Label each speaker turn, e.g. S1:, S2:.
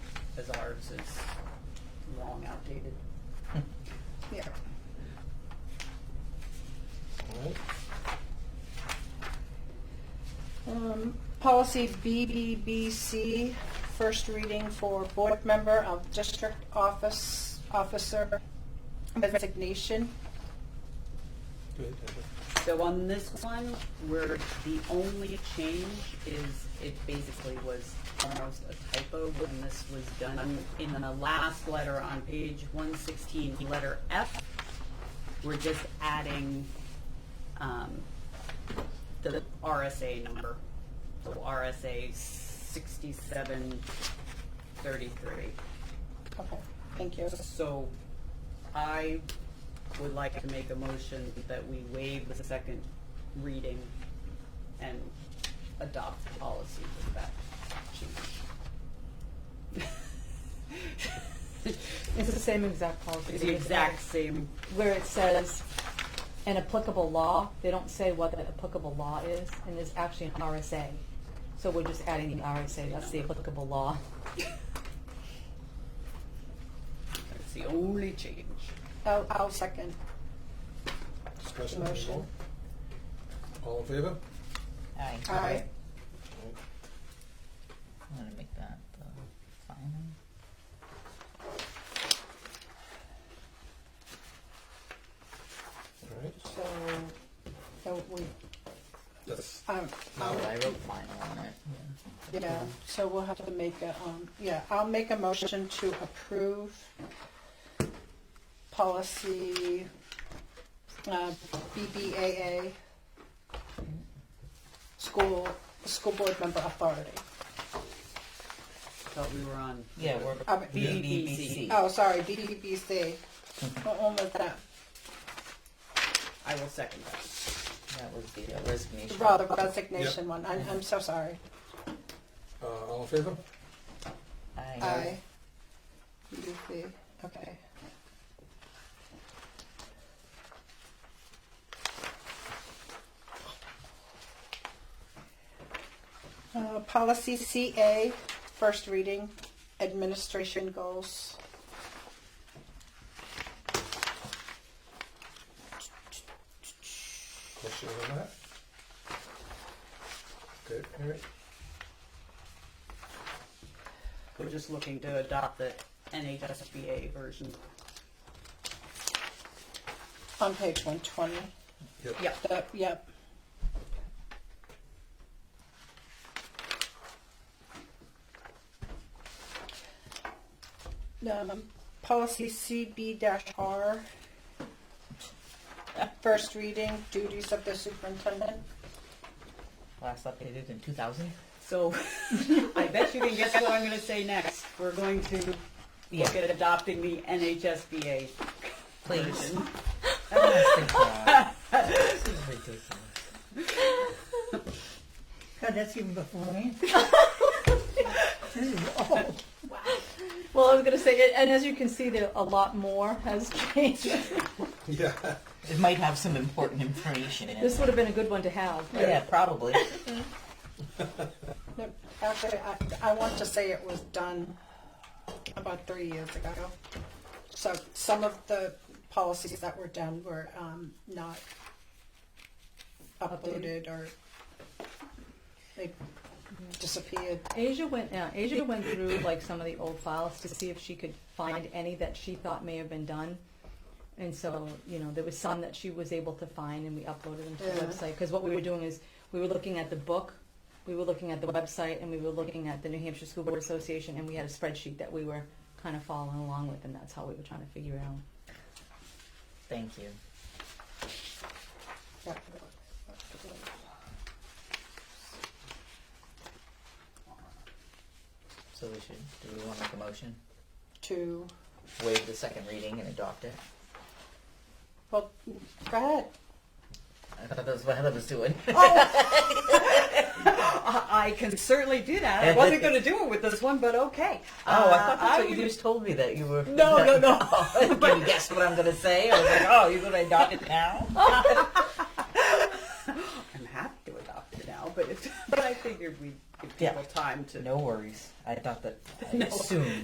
S1: because ours is long outdated. Yeah.
S2: Alright,
S3: Um, Policy BBBC, first reading for board member of district office, officer resignation.
S2: good, Deborah.
S1: So on this one, where the only change is, it basically was almost a typo when this was done in the last letter on page one sixteen, letter F. We're just adding, um, the RSA number. So RSA sixty-seven thirty-three.
S3: Okay, thank you.
S1: So I would like to make a motion that we waive the second reading and adopt the policy with that change.
S4: It's the same exact policy.
S1: It's the exact same,
S4: Where it says an applicable law, they don't say what that applicable law is, and there's actually an RSA. So we're just adding the RSA, that's the applicable law.
S1: it's the only change.
S3: I'll, I'll second.
S2: Discussion. any
S3: Motion.
S2: more? All in favor?
S5: Aye.
S3: Aye.
S2: Alright,
S5: I'm gonna make that the final.
S2: Alright,
S3: So, so we,
S2: that's,
S3: um,
S5: Oh,
S3: I'll-
S5: I wrote final on it, yeah.
S3: yeah, so we'll have to make a, um, yeah, I'll make a motion to approve policy, uh, BBAA, school, school board member authority.
S1: Thought we were on.
S5: Yeah, we're
S3: I mean-
S5: BBBC.
S3: Oh, sorry, BBBC. What one was that?
S1: I will second that.
S5: That was the uh, resignation.
S3: Well, the resignation one. I'm, I'm so sorry.
S2: uh, all in favor?
S3: I. BBC. Okay. Uh, policy CA, first reading, administration goals.
S2: Question on that? Good, alright,
S1: We're just looking to adopt the NHSBA version.
S3: On page one twenty.
S2: yep.
S1: Yeah.
S3: Yep, yep. Um, policy CB dash R. First reading duties of the superintendent.
S5: Last updated in two thousand?
S1: So I bet you can guess what I'm gonna say next. We're going to look at adopting the NHSBA
S5: Please.
S1: version.
S5: Oh, thank God. This is ridiculous.
S6: God, that's even before me. this is old.
S4: Well, I was gonna say, and as you can see, there, a lot more has changed.
S2: Yeah,
S5: It might have some important information in
S4: This
S5: it.
S4: would have been a good one to have.
S5: Yeah, probably.
S3: No, Actually, I, I want to say it was done about three years ago. So some of the policies that were done were um, not uploaded or they disappeared.
S4: Asia went, yeah, Asia went through like some of the old files to see if she could find any that she thought may have been done. And so, you know, there was some that she was able to find and we uploaded them to the
S3: Yeah.
S4: website. Because what we were doing is we were looking at the book, we were looking at the website, and we were looking at the New Hampshire School Board Association, and we had a spreadsheet that we were kind of following along with, and that's how we were trying to figure it out.
S5: Thank you. So we should, do we wanna make a motion?
S3: To,
S5: Waive the second reading and adopt it?
S3: well, go ahead.
S5: I thought that was what Heather was doing. Oh,
S1: I I can certainly do that. I wasn't going to do it with this one, but okay.
S5: Oh, I
S1: Uh,
S5: thought that's what you
S1: would-
S5: just told me that you were.
S1: No, no, no.
S5: Can you guess what I'm going to say? I was like, oh, you're going to adopt it now?
S1: I'm happy to adopt it now, but, it, but I figured we'd give people
S5: Yeah.
S1: time to
S5: No worries. I thought that. I assumed.